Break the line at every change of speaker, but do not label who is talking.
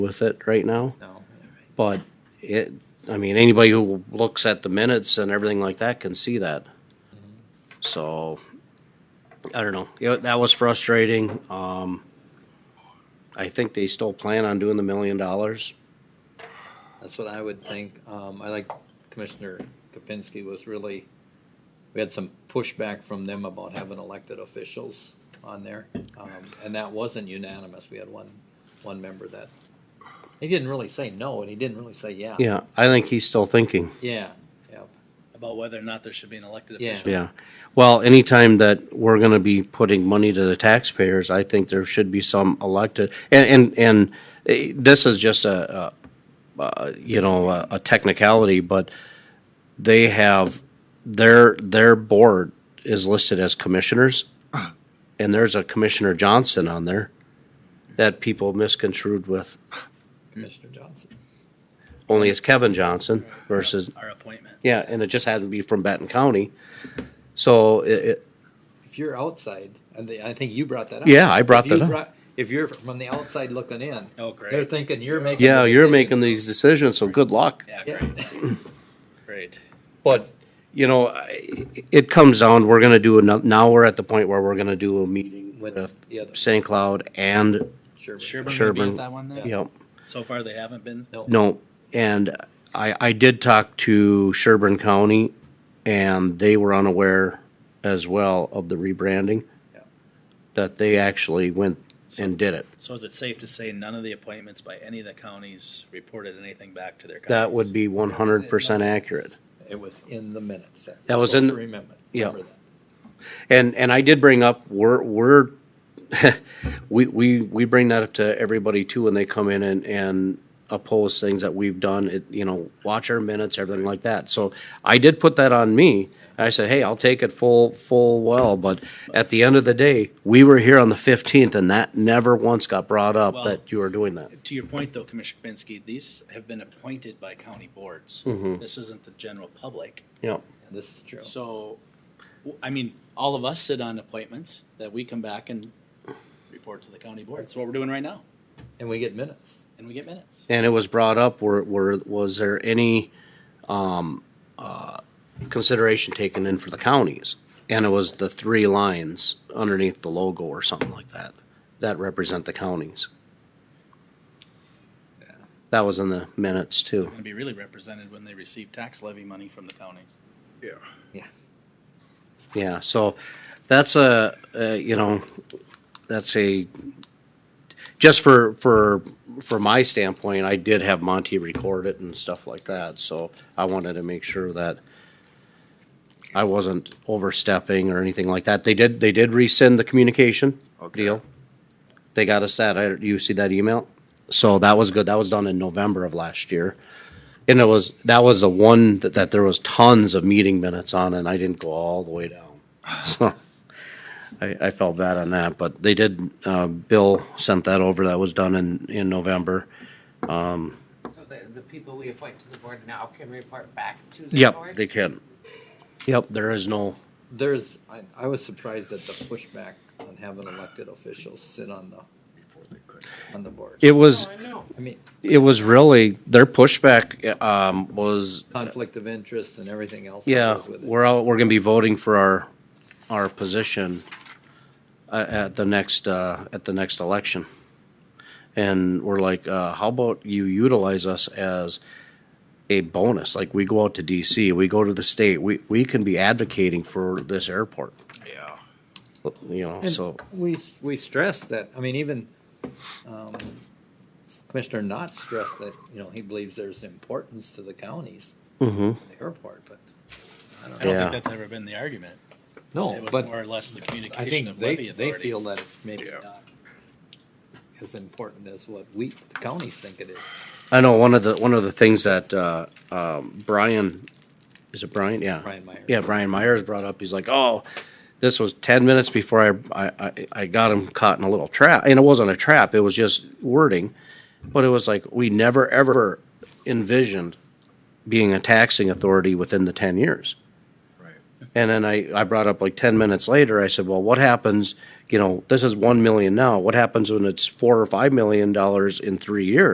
with it right now,
No.
but it, I mean, anybody who looks at the minutes and everything like that can see that. So, I don't know, Yeah, that was frustrating, um, I think they still plan on doing the million dollars.
That's what I would think. Um, I like Commissioner Kapinski was really, we had some pushback from them about having elected officials on there. Um, and that wasn't unanimous. We had one, one member that, he didn't really say no and he didn't really say yeah.
Yeah, I think he's still thinking.
Yeah, yep.
about whether or not there should be an elected
Yeah.
official.
Yeah, well, anytime that we're gonna be putting money to the taxpayers, I think there should be some elected, and, and, and eh, this is just a, a, uh, you know, a a technicality, but they have, their, their board is listed as commissioners, and there's a Commissioner Johnson on there that people misconstrued with,
Commissioner Johnson.
only it's Kevin Johnson versus
Our appointment.
Yeah, and it just had to be from Benton County. So it, it,
If you're outside, and the- I think you brought that up.
Yeah, I brought
If you
that up.
brought- If you're from the outside looking in,
Oh, great.
they're thinking you're making.
yeah,
the
you're
decision.
making these decisions, so good luck.
Yeah,
Yeah.
great, great.
But, you know, I- it comes down, we're gonna do another, now we're at the point where we're gonna do a meeting with
With the other,
St. Cloud and,
Sherburne.
Sherburne may be
Sherburne.
at that one then?
you know,
So far, they haven't been?
no. And I, I did talk to Sherburne County and they were unaware as well of the rebranding.
Yeah.
That they actually went and did it.
So is it safe to say none of the appointments by any of the counties reported anything back to their counties?
That would be one hundred percent accurate.
It was in the minutes.
That was
Supposed
in-
to Remember.
yeah.
remember that.
And, and I did bring up, we're, we're, we, we, we bring that up to everybody too when they come in and, and oppose things that we've done, it, you know, watch our minutes, everything like that. So I did put that on me. I said, hey, I'll take it full, full well, but at the end of the day, we were here on the fifteenth and that never once got brought up
Well-
that you were doing that.
To your point, though, Commissioner Kapinski, these have been appointed by county boards.
Mm-hmm.
This isn't the general public.
Yeah,
This is true.
So, w- I mean, all of us sit on appointments that we come back and report to the county board. That's what we're doing right now,
And we get minutes.
and we get minutes.
and it was brought up, were, were, was there any, um, uh, consideration taken in for the counties? And it was the three lines underneath the logo or something like that, that represent the counties. That was in the minutes too.
Going to be really represented when they receive tax levy money from the county.
Yeah.
Yeah.
Yeah, so that's a, uh, you know, that's a, just for, for, for my standpoint, I did have Monty record it and stuff like that, so I wanted to make sure that I wasn't overstepping or anything like that. They did, they did rescind the communication
Okay.
deal. They got us that, I, you see that email? So that was good, that was done in November of last year. And it was, that was the one that, that there was tons of meeting minutes on and I didn't go all the way down. So I, I felt bad on that, but they did, uh, Bill sent that over. That was done in, in November.
So the, the people we appoint to the board now can report back to the
Yep,
board?
they can. Yep, there is no,
There's, I, I was surprised at the pushback on having elected officials sit on the, on the board.
it was,
Oh, I know.
I mean,
it was really, their pushback, um, was,
conflict of interest and everything else. that
yeah,
goes with it.
we're all, we're gonna be voting for our, our position uh, at the next, uh, at the next election. And we're like, uh, how about you utilize us as a bonus? Like, we go out to DC, we go to the state, we, we can be advocating for this airport,
Yeah.
you know, so.
We, we stressed that, I mean, even, um, Commissioner Knott stressed that, you know, he believes there's importance to the counties.
Mm-hmm.
The airport, but,
I don't
Yeah.
think that's ever been the argument.
no,
It was more
but
or less the
I
communication
think
of
they,
levy
they
authority.
feel that it's maybe
Yeah.
not as important as what we, the counties think it is.
I know one of the, one of the things that, uh, um, Brian, is it Brian? Yeah.
Brian Myers.
Yeah, Brian Myers brought up, he's like, oh, this was ten minutes before I, I, I, I got him caught in a little trap, and it wasn't a trap, it was just wording. But it was like, we never ever envisioned being a taxing authority within the ten years.
Right.
And then I, I brought up like ten minutes later, I said, well, what happens, you know, this is one million now, what happens when it's four or five million dollars in three years?